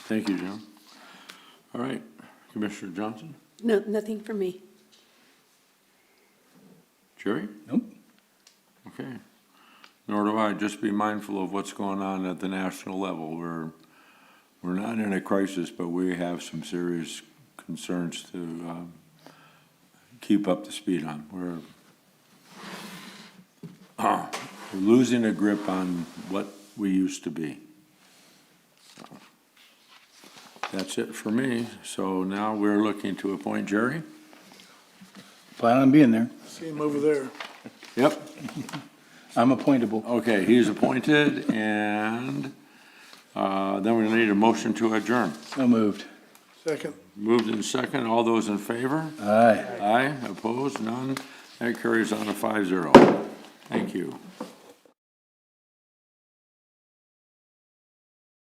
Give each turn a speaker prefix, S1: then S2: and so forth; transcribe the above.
S1: Thank you, John. All right, Commissioner Johnson,
S2: No, nothing for me.
S1: Jerry?
S3: Nope.
S1: Okay. Nor do I. Just be mindful of what's going on at the national level. We're, we're not in a crisis, but we have some serious concerns to um, keep up the speed on. We're we're losing a grip on what we used to be. So, That's it for me. So now we're looking to appoint Jerry.
S3: Plan on being there.
S4: See him over there.
S1: Yep.
S3: I'm appointable.
S1: Okay, he's appointed, and uh, then we need a motion to adjourn.
S3: So moved.
S4: Second.
S1: Moved in second, all those in favor?
S3: Aye.
S1: Aye, opposed, none? That carries on to five zero. Thank you.